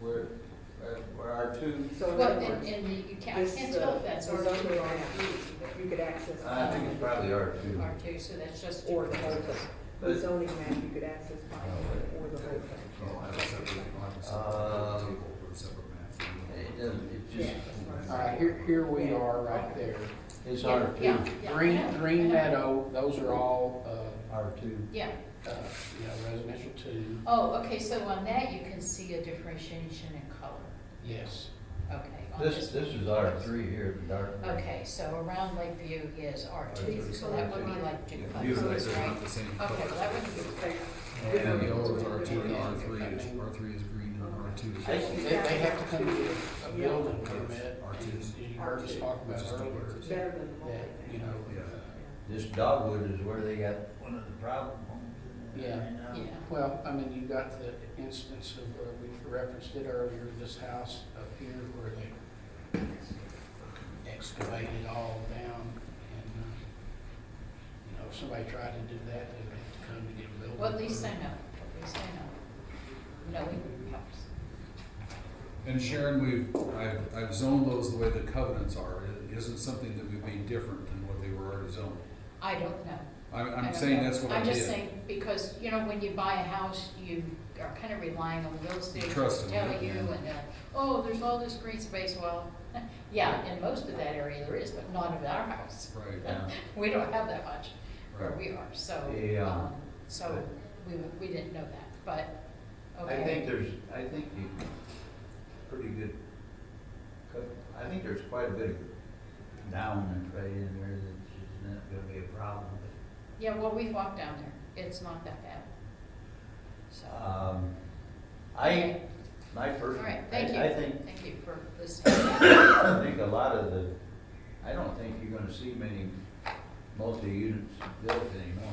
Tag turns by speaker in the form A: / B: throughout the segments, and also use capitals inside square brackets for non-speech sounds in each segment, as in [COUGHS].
A: where, uh, where our two,
B: So in
C: Well,
B: other
C: and,
B: words,
C: and you can't,
B: this,
C: can't tell
B: uh,
C: if that's
B: is
C: R two
B: under
C: or
B: our
C: R
B: that you could access.
A: I think it's probably our two.
C: two, so that's just.
B: Or the whole thing. The zoning map, you could access by or or the whole thing.
D: Oh, I have a separate, I have a
A: Uh,
D: separate table for a separate map.
A: It doesn't, it
B: Yeah,
A: just,
B: that's
E: All
B: right.
E: right, here, here we are right there.
A: it's
C: Yeah,
A: our two,
C: yeah, yeah, I
E: Green,
C: know, I
E: Green
C: know.
E: Meadow, those are all, uh,
A: our two.
C: Yeah,
E: uh, you know, residential two,
C: oh, okay, so on that you can see a differentiation in color,
E: yes.
C: okay. on
A: This, this is our three here, the dark. green.
C: Okay, so around Lakeview is R two,
A: R2.
C: so that would be like two
D: Yeah,
C: colors,
D: Usually
C: right?
D: they're not the same
C: Okay, well, that
D: color.
C: would be,
D: And
B: Yeah.
D: the old R two and R three is,
E: Yeah.
D: R three is green and R two is.
E: They,
D: yellow.
E: they have to come get a building permit,
D: R
E: and as
D: twos.
E: you heard us talk
D: Which
E: about
D: is
E: earlier,
D: the-
B: Better than the
E: that,
B: multi-family.
E: you know,
D: Yeah.
E: uh,
A: This dogwood is where they got one of the problem homes. in there
E: Yeah.
A: right now.
C: yeah.
E: Well, I mean, you got the instance of, uh, we referenced it earlier, this house up here where they excavated all down and, uh, you know, if somebody tried to do that, they would have to come to get a building.
C: Well, at least I know,
E: permit.
C: at least I know. Knowing helps.
D: And Sharon, we've, I've, I've zoned those the way the covenants are. It isn't something that would be different than what they were already zoned.
C: I don't know.
D: I'm,
C: I
D: I'm
C: don't
D: saying
C: know.
D: that's what I did.
C: I'm just saying, because, you know, when you buy a house, you are kind of relying on real estate
D: You
C: to
D: trust them,
C: tell
D: yeah.
C: you, and, uh, oh, there's all this green space, well, [LAUGHS] yeah, in most of that area there is, but not in our house. [LAUGHS]
D: Right,
A: Yeah.
C: We don't have that much where
D: right.
C: we are, so,
A: Yeah.
C: um, so we, we didn't know that, but, okay.
A: I think there's, I think you, pretty good, co- I think there's quite a bit of down and trade in there that's just not gonna be a problem.
C: Yeah, well, we've walked down there, it's not that bad. So,
A: Um, I, my
C: all
A: personal,
C: right,
A: I,
C: thank you,
A: I think, [COUGHS]
C: thank you for listening.
A: I think a lot of the, I don't think you're gonna see many multi-units built anymore.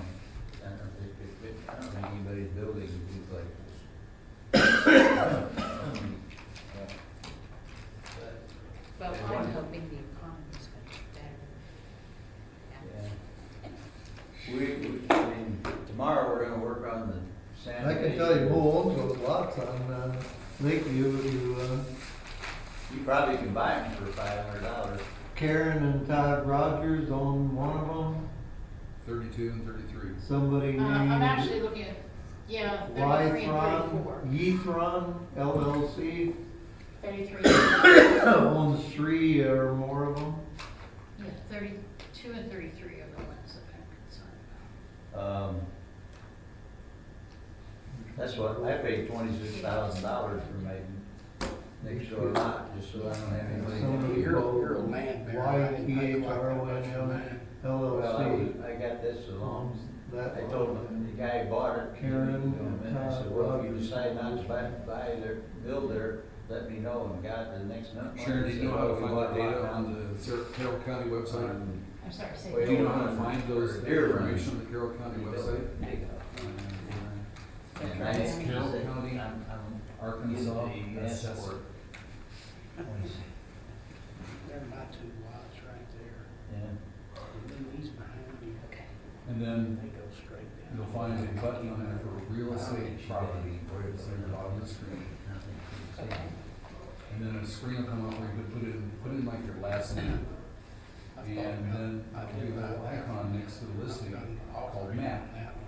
A: I don't think, I don't think anybody's building things like [COUGHS] this. Yeah.
C: But I'm hoping the economy's gonna be better.
A: We, we, I mean, tomorrow, we're gonna work on the sand.
F: I can tell you who owns those lots on uh, Lakeview, you, uh,
A: You probably can buy them for five hundred dollars.
F: Karen and Todd Rogers own one of them,
D: Thirty-two and thirty-three.
F: somebody named.
C: Uh, I'm actually looking at, yeah, thirty-three and
F: Wythron,
C: thirty-four.
F: Yethron LLC
A: [COUGHS]
C: Thirty-three,
F: owns three or more of them.
C: yeah, thirty-two and thirty-three are the ones that I'm concerned
A: Um, that's what, I paid twenty-six thousand dollars for my next door lot, just so I don't have anybody.
E: You're, you're a land baron, I didn't pay quite that much for mine.
A: Well, I,
F: LLC
A: was- I got this along,
F: owns that
A: I
F: one.
A: told him, the guy who bought it.
F: Karen
A: you know, And I said, well, if you
F: Todd.
A: decide not to buy, buy their, build there, let me know, and got the next month.
D: Sharon, do you
A: Said,
D: know how
A: "Well, we
D: to find
A: bought
D: that data
A: lot now."
D: on the Cer- Carroll County website?
A: Um,
C: about. I'm sorry, say
A: Well,
D: Do
C: again.
D: you know how to find those, that
A: Deer Run.
D: information on the Carroll County website?
A: And I
D: It's
A: said,
D: Carroll
A: I'm,
D: County,
A: I'm
D: Arkansas,
A: getting a yes
D: that's that's-
A: or.
E: They're my two lots right there,
A: Yeah.
E: and then he's behind me,
C: Okay,
D: And then
E: they go straight down.
D: you'll find a button on there for real estate property, where it's on the bottom of the screen.
C: okay,
D: And then a screen will come up where you can put in, put in like your last name.
E: I thought
D: And then
E: about- I
D: there'll be a
E: thought
D: little
E: about that
D: icon
E: one.
D: next to the listing
E: I've done all
D: called
E: three
D: map.
E: on that one.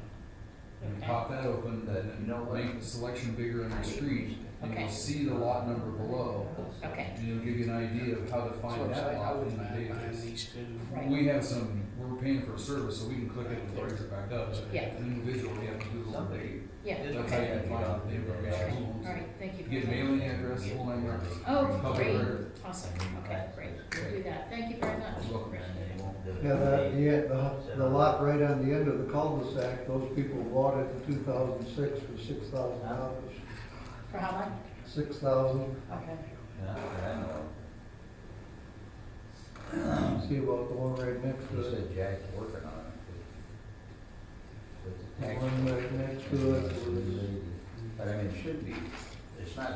D: And you pop that open,
A: But you
D: and
A: know
D: then
A: what?
D: make the selection bigger on your screen, and
C: Okay.
D: you'll see the lot number below.
C: okay,
D: And it'll give you an idea of how to
E: So
D: find
E: I'm
D: that
E: saying, I
D: lot in
E: wouldn't
D: the
E: mind buying
D: database.
E: these two.
C: Right.
D: We have some, we're paying for a service, so we can click it and brings it back up. but
C: Yeah.
D: An individual, we have to do a little bit.
C: yeah,
D: That's how you
C: okay,
D: can find out the
C: okay,
D: information.
C: all right, thank you. for
D: Get
C: that.
D: mailing address, full name, address.
C: Oh,
D: Public
C: great,
D: record.
C: awesome, okay, great, we'll do that, thank you very much.
D: You're welcome.
C: Appreciate it.
F: Yeah, that, yeah, the, the lot right on the end of the cul-de-sac, those people bought it in two thousand six for six thousand dollars.
C: For how long?
F: Six thousand,
C: Okay.
A: Not that I know of.
F: see about the one right next
A: He
F: to it.
A: said Jack's working on it. but- but
F: The
A: the tax-
F: one right next to it was
A: But I mean, it should be, it's not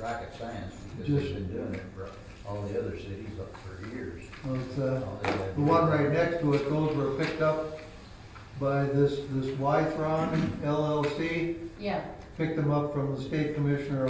A: rocket science, because
F: Just-
A: they've been doing it for all the other cities up for years.
F: Well, It's, uh,
A: All they had to
F: the
A: do-
F: one right next to it, those were picked up by this, this Wythron LLC,
C: Yeah,
F: picked them up from the state commissioner